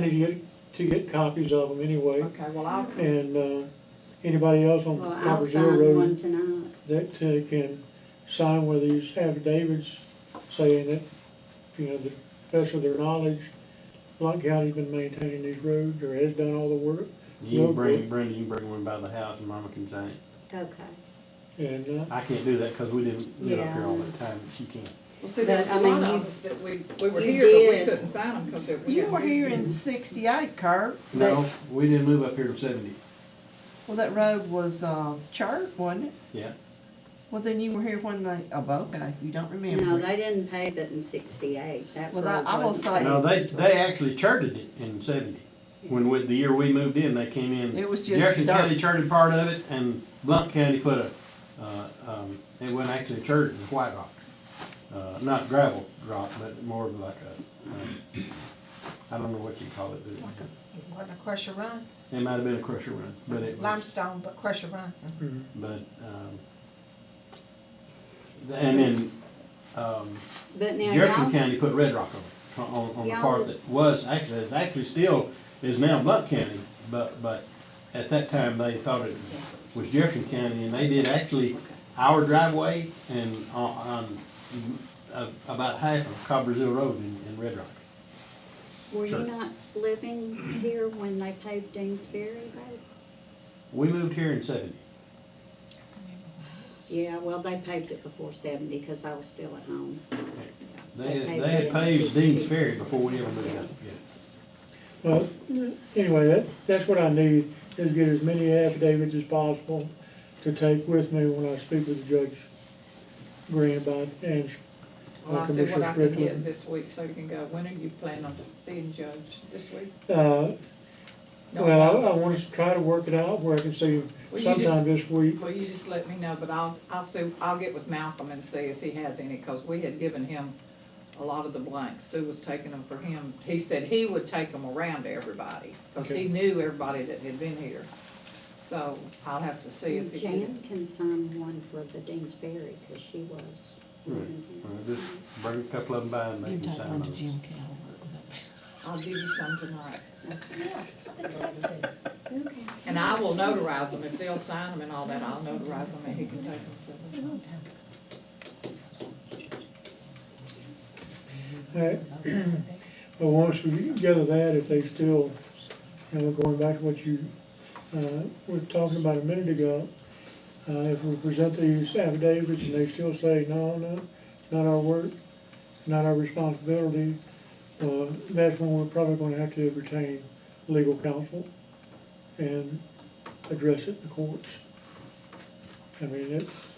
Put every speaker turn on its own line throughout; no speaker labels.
need to get, to get copies of them anyway.
Okay, well, I'll,
And, uh, anybody else on
Well, I'll
Copper Hill
sign one
Road
tonight.
that uh, can sign one of these affidavits saying that, you know, the best of their knowledge, Blount County's been maintaining these roads or has done all the work.
You
No,
can bring,
but-
Brenda, you can bring one by the house and Mama can sign it.
Okay.
And, uh,
I can't do that because we didn't live up here
Yeah.
all the time, she can.
Well, see, there was
But, I
a
mean,
lot
you-
of us that we, we were
you
here, but we
did.
couldn't sign them because it was.
you were here in sixty-eight, Kurt.
No, we didn't move up here in seventy,
Well, that road was, uh, chart, wasn't it?
yeah.
Well, then you were here when they, oh, okay, you don't remember.
No, they didn't pave it in sixty-eight, that
Well,
road
I- I will
wasn't
say-
paved.
No, they, they actually charted it in seventy. When, with the year we moved in, they came in.
It was just
Jefferson County
dirt.
charted part of it and Blount County put a, uh, um, it wasn't actually charted, it was white rock. Uh, not gravel rock, but more of like a, um, I don't know what you call it, but
Like
it-
a, wasn't a crusher run,
it might have been a crusher run, but it was.
limestone, but crusher run.
But, um, th- and then, um,
But now
Jefferson
y'all,
County put Red Rock on, it, on, on the
Y'all-
part that was actually, is actually still, is now Blount County, but, but at that time, they thought it was Jefferson County, and they did actually our driveway and on, on, a- about half of Cobbers Hill Road in, in Red Rock.
were you
Sure.
not living here when they paved Dean's Ferry Road?
We moved here in seventy.
Yeah, well, they paved it before seventy, cause I was still at home.
They,
They
they had
paved it in
paved Dean's
60.
Ferry before we ever moved out, yeah.
well, anyway, that, that's what I need, is get as many affidavits as possible to take with me when I speak with Judge Green about, and uh,
Well, I see what I
Commissioner
can
Strickland.
get this week, so you can go, when are you planning on seeing Judge, this week?
Uh,
No,
well, I, I want to try to work it out where I can see him
Well, you
sometime
just-
this week.
Well, you just let me know, but I'll, I'll see, I'll get with Malcolm and see if he has any, because we had given him a lot of the blanks. Sue was taking them for him. He said he would take them around to everybody, because
Okay.
he knew everybody that had been here. So I'll have to see if he
Jan
can.
can sign one for the Dean's Ferry, cause she was. living here.
Well, Just bring a couple of them by and
You
make them
take
sign
one to
those.
Jim Calvert with that.
I'll give you some tonight.
Okay.
And I will notarize them. If they'll sign them and all that, I'll notarize them and he can take them for them.
All right. But once we gather that, if they still, you know, going back to what you, uh, were talking about a minute ago, uh, if we present these affidavits and they still say, no, no, not our work, not our responsibility, uh, that's when we're probably gonna have to retain legal counsel and address it in the courts. I mean, it's,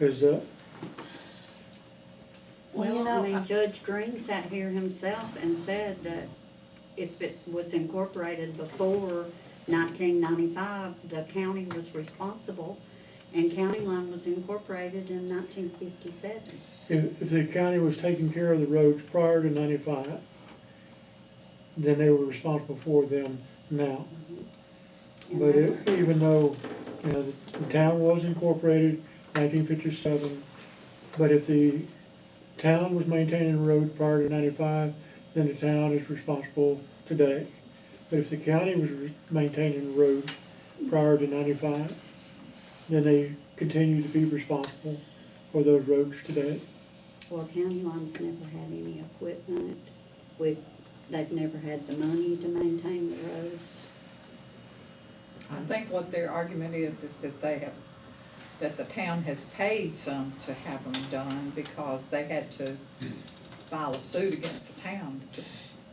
is, uh,
Well, you
Well, I
know,
mean,
I-
Judge Green sat here himself and said that if it was incorporated before nineteen ninety-five, the county was responsible, and county line was incorporated in nineteen fifty-seven.
If, if the county was taking care of the roads prior to ninety-five, then they were responsible for them now. But it- even though, you know, the town was incorporated nineteen fifty-seven, but if the town was maintaining the road prior to ninety-five, then the town is responsible today. But if the county was re- maintaining the roads prior to ninety-five, then they continue to be responsible for those roads today.
Well, county line's never had any equipment, we, they've never had the money to maintain the roads.
I think what their argument is, is that they have, that the town has paid some to have them done because they had to file a suit against the town to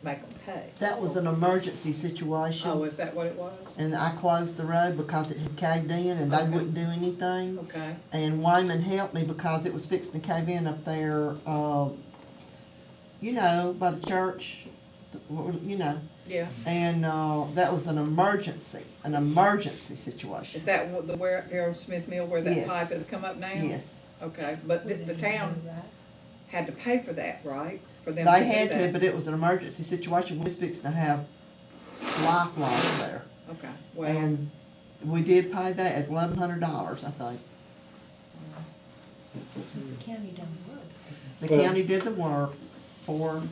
make them pay.
that was an Mm-hmm. emergency situation.
Oh, is that what it was?
And I closed the road because it had caved in and they
Okay.
wouldn't do anything.
Okay,
And Wyman helped me because it was fixing to cave in up there, uh, you know, by the church, you know.
yeah.
And, uh, that was an emergency, an emergency situation.
Is that what the, where, Harold Smith Mill, where that
Yes.
pipe has come up now?
Yes.
Okay, but the, the town had to pay for that, right? For
They
them to do
had to,
that?
but it was an emergency situation. We was fixing to have lifelines there.
Okay, well,
And we did pay that as eleven hundred dollars, I think.
The county done
The
Well-
county did the work for